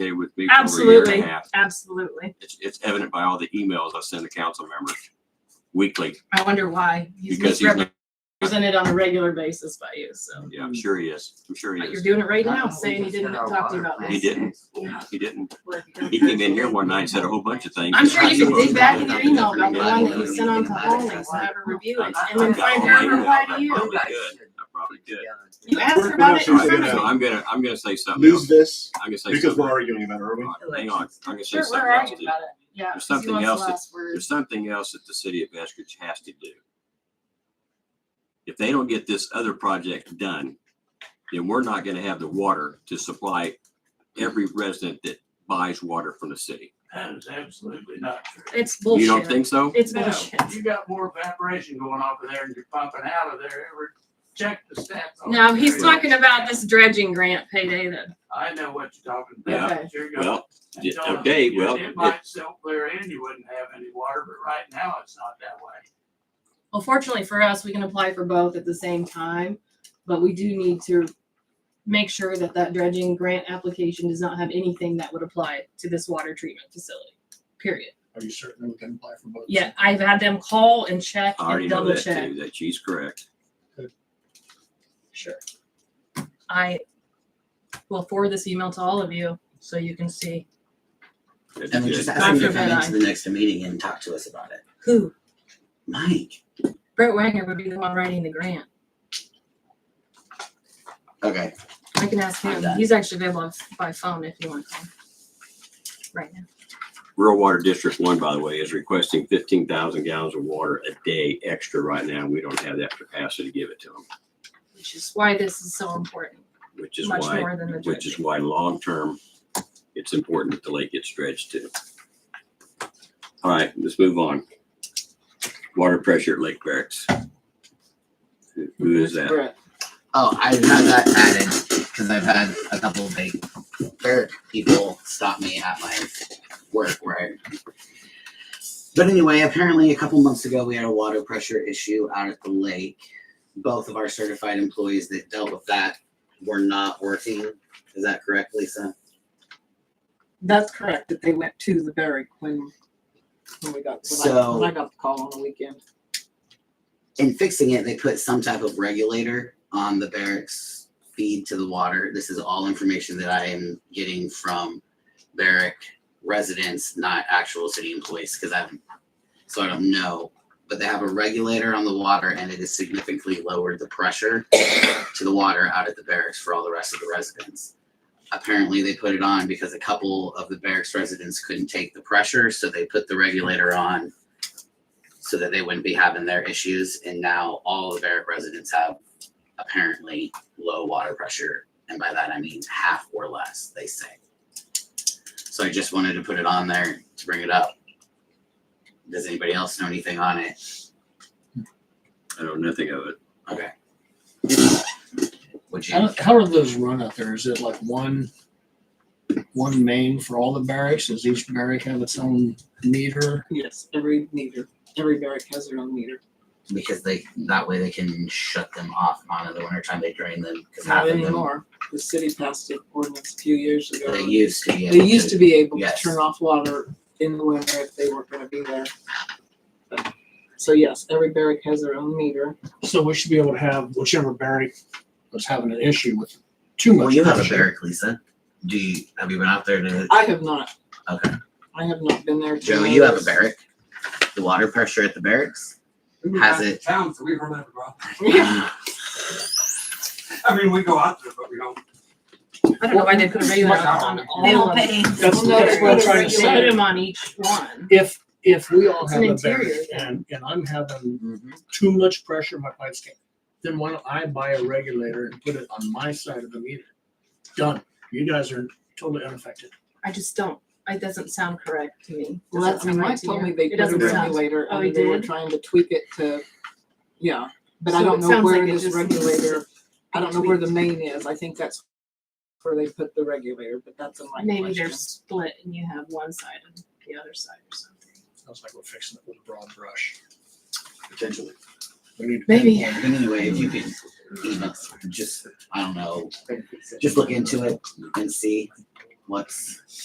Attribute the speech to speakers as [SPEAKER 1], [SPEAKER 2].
[SPEAKER 1] communicated with me for over a year and
[SPEAKER 2] Absolutely,
[SPEAKER 1] a half.
[SPEAKER 2] absolutely.
[SPEAKER 1] It's, it's evident by all the emails I send to council members weekly
[SPEAKER 2] I wonder why. He's
[SPEAKER 1] because he's, not-
[SPEAKER 2] misrepresented on a regular basis by you, so.
[SPEAKER 1] yeah, I'm sure he is. I'm sure he
[SPEAKER 2] But you're
[SPEAKER 1] is.
[SPEAKER 2] doing it right
[SPEAKER 3] I
[SPEAKER 2] now,
[SPEAKER 3] don't
[SPEAKER 2] saying he
[SPEAKER 3] think
[SPEAKER 2] didn't
[SPEAKER 3] it's in our
[SPEAKER 2] talk to you
[SPEAKER 3] water
[SPEAKER 2] about
[SPEAKER 3] plan.
[SPEAKER 1] He
[SPEAKER 2] this.
[SPEAKER 1] didn't. He didn't. He came in here one night and said a whole bunch of things.
[SPEAKER 2] I'm sure you can dig
[SPEAKER 1] He
[SPEAKER 2] back in
[SPEAKER 1] wasn't-
[SPEAKER 2] your email about the one that you
[SPEAKER 1] Yeah.
[SPEAKER 2] sent on to Holly, so have her review it, and
[SPEAKER 1] I've
[SPEAKER 2] then
[SPEAKER 1] got
[SPEAKER 2] Frank
[SPEAKER 1] all my
[SPEAKER 2] Herbert replied
[SPEAKER 1] emails.
[SPEAKER 2] to you.
[SPEAKER 4] Oh,
[SPEAKER 1] I
[SPEAKER 3] You
[SPEAKER 1] probably
[SPEAKER 3] guys
[SPEAKER 1] did.
[SPEAKER 3] should.
[SPEAKER 1] I probably did.
[SPEAKER 2] You asked her
[SPEAKER 5] We're
[SPEAKER 2] about
[SPEAKER 5] not
[SPEAKER 2] it
[SPEAKER 1] So
[SPEAKER 2] in
[SPEAKER 5] sure
[SPEAKER 2] front
[SPEAKER 5] that-
[SPEAKER 2] of
[SPEAKER 1] I'm
[SPEAKER 2] me.
[SPEAKER 1] I'm gonna, I'm gonna say something
[SPEAKER 5] Lose
[SPEAKER 1] else.
[SPEAKER 5] this
[SPEAKER 1] I'm gonna say
[SPEAKER 5] because
[SPEAKER 1] something.
[SPEAKER 5] we're arguing about it, are we?
[SPEAKER 1] Hang on, I'm gonna say
[SPEAKER 2] Sure,
[SPEAKER 1] something
[SPEAKER 2] we're
[SPEAKER 1] else.
[SPEAKER 2] arguing
[SPEAKER 1] too.
[SPEAKER 2] about it, yeah.
[SPEAKER 1] There's something else that- There's something else that the city of Eskridge has to do. If they don't get this other project done, then we're not gonna have the water to supply every resident that buys water from the city.
[SPEAKER 6] That is absolutely not true.
[SPEAKER 2] It's
[SPEAKER 1] You don't
[SPEAKER 2] bullshit.
[SPEAKER 1] think so?
[SPEAKER 2] It's
[SPEAKER 6] No,
[SPEAKER 2] bullshit.
[SPEAKER 6] You got more evaporation going off of there and you're pumping out of there. Ever check the stats? on
[SPEAKER 2] No,
[SPEAKER 6] it.
[SPEAKER 2] he's talking about this dredging grant payday that,
[SPEAKER 6] I know what you're talking
[SPEAKER 2] Yeah.
[SPEAKER 6] about. You're gonna-
[SPEAKER 1] Well,
[SPEAKER 6] and
[SPEAKER 1] yeah,
[SPEAKER 6] don't-
[SPEAKER 1] okay,
[SPEAKER 6] it-
[SPEAKER 1] well, it-
[SPEAKER 6] It might still clear in, you wouldn't have any water, but right now it's not that way.
[SPEAKER 2] well, fortunately for us, we can apply for both at the same time, but we do need to make sure that that dredging grant application does not have anything that would apply to this water treatment facility, period.
[SPEAKER 5] Are you certain we can apply for both?
[SPEAKER 2] Yeah, I've had them call and check
[SPEAKER 1] I already
[SPEAKER 2] and
[SPEAKER 1] know
[SPEAKER 2] double
[SPEAKER 1] that
[SPEAKER 2] check.
[SPEAKER 1] too, that she's correct.
[SPEAKER 2] Sure. I will forward this email to all of you so you can see
[SPEAKER 1] That'd be
[SPEAKER 4] And we
[SPEAKER 1] good.
[SPEAKER 4] just ask him to
[SPEAKER 2] Dr.
[SPEAKER 4] come
[SPEAKER 2] Van
[SPEAKER 4] into the next meeting and talk to us about it.
[SPEAKER 2] who.
[SPEAKER 4] Mike.
[SPEAKER 2] Brett Wagner would be the one writing the grant.
[SPEAKER 4] Okay.
[SPEAKER 2] I can ask him. He's actually available by phone if you want to call. him Right now.
[SPEAKER 1] Rural Water District One, by the way, is requesting fifteen thousand gallons of water a day extra right now. We don't have that capacity to give it to them,
[SPEAKER 2] Which is why this is so important,
[SPEAKER 1] which is
[SPEAKER 2] much
[SPEAKER 1] why,
[SPEAKER 2] more than the
[SPEAKER 1] which is
[SPEAKER 2] dredging.
[SPEAKER 1] why long-term, it's important that the lake gets dredged too. All right, let's move on. Water pressure at Lake Barracks. Who- Who is that?
[SPEAKER 2] Brett.
[SPEAKER 4] Oh, I have that added because I've had a couple of big fair people stop me at my work where I but anyway, apparently a couple months ago we had a water pressure issue out at the lake. Both of our certified employees that dealt with that were not working. Is that correct, Lisa?
[SPEAKER 7] That's correct, that they went to the Berwick when, when we got, when I,
[SPEAKER 4] So-
[SPEAKER 7] when I got the call on the weekend.
[SPEAKER 4] in fixing it, they put some type of regulator on the barracks feed to the water. This is all information that I am getting from barrack residents, not actual city employees, because I'm, so I don't know. But they have a regulator on the water and it has significantly lowered the pressure to the water out at the barracks for all the rest of the residents. Apparently, they put it on because a couple of the barracks residents couldn't take the pressure, so they put the regulator on so that they wouldn't be having their issues. And now all the Barrett residents have apparently low water pressure. And by that, I mean half or less, they say. So I just wanted to put it on there to bring it up. Does anybody else know anything on it?
[SPEAKER 1] I know nothing of it.
[SPEAKER 4] Okay. Would
[SPEAKER 8] I
[SPEAKER 4] you?
[SPEAKER 8] don't- How are those run out there? Is it like one, one main for all the barracks? Does each barrack have its own meter?
[SPEAKER 7] Yes, every meter, every barrack has their own meter.
[SPEAKER 4] Because they, that way they can shut them off on in the wintertime, they drain them, because half
[SPEAKER 7] Not
[SPEAKER 4] of them,
[SPEAKER 7] anymore. The city passed an ordinance a few years ago.
[SPEAKER 4] they used to.
[SPEAKER 7] They used to be able to
[SPEAKER 4] Yes.
[SPEAKER 7] turn off water in the winter if they weren't gonna be there. But- So yes, every barrack has their own meter.
[SPEAKER 8] So we should be able to have whichever barrack was having an issue with too much.
[SPEAKER 4] Well, you have a
[SPEAKER 8] pressure.
[SPEAKER 4] barrack, Lisa. Do you, have you been out there to?
[SPEAKER 7] I have not,
[SPEAKER 4] Okay.
[SPEAKER 7] I have not been there. to
[SPEAKER 4] Joe, you have a
[SPEAKER 7] notice.
[SPEAKER 4] barrack. The water pressure at the barracks has it.
[SPEAKER 6] Town, so we run out of rock.
[SPEAKER 4] Yeah.
[SPEAKER 6] I mean, we go out there, but we don't.
[SPEAKER 2] I don't know why they put a regulator on all.
[SPEAKER 7] They
[SPEAKER 2] of
[SPEAKER 7] will
[SPEAKER 2] them.
[SPEAKER 7] pay.
[SPEAKER 8] That's,
[SPEAKER 2] Well,
[SPEAKER 8] that's what I'm
[SPEAKER 2] they
[SPEAKER 8] trying to
[SPEAKER 2] put a
[SPEAKER 8] say.
[SPEAKER 2] regulator on each one.
[SPEAKER 8] If, if we all
[SPEAKER 2] It's
[SPEAKER 8] have
[SPEAKER 2] an
[SPEAKER 8] a barrack
[SPEAKER 2] interior.
[SPEAKER 8] and, and I'm having
[SPEAKER 4] Mm-hmm.
[SPEAKER 8] too much pressure, my pipes can't, then why don't I buy a regulator and put it on my side of the meter? Done. You guys are totally unaffected.
[SPEAKER 2] I just don't, it doesn't sound correct to me.
[SPEAKER 7] Well, that's,
[SPEAKER 2] Doesn't sound right
[SPEAKER 7] Mike
[SPEAKER 2] to
[SPEAKER 7] told
[SPEAKER 2] you.
[SPEAKER 7] me they
[SPEAKER 2] It
[SPEAKER 7] put a
[SPEAKER 2] doesn't sound.
[SPEAKER 7] regulator
[SPEAKER 2] Oh, he
[SPEAKER 7] and they were
[SPEAKER 2] did?
[SPEAKER 7] trying to tweak it to, yeah, but I
[SPEAKER 2] So
[SPEAKER 7] don't
[SPEAKER 2] it
[SPEAKER 7] know
[SPEAKER 2] sounds
[SPEAKER 7] where
[SPEAKER 2] like it
[SPEAKER 7] this
[SPEAKER 2] just needs to
[SPEAKER 7] regulator, I don't know where the
[SPEAKER 2] tweaked.
[SPEAKER 7] main is, I think that's where they put the regulator, but that's a my
[SPEAKER 2] Maybe they're
[SPEAKER 7] question.
[SPEAKER 2] split and you have one side and the other side or something.
[SPEAKER 8] Sounds like we're fixing it with a broad brush.
[SPEAKER 5] Potentially.
[SPEAKER 8] We need to
[SPEAKER 2] Maybe.
[SPEAKER 8] pinpoint it.
[SPEAKER 4] Anyway, if you can, you know, just, I don't know, just look into it and see what's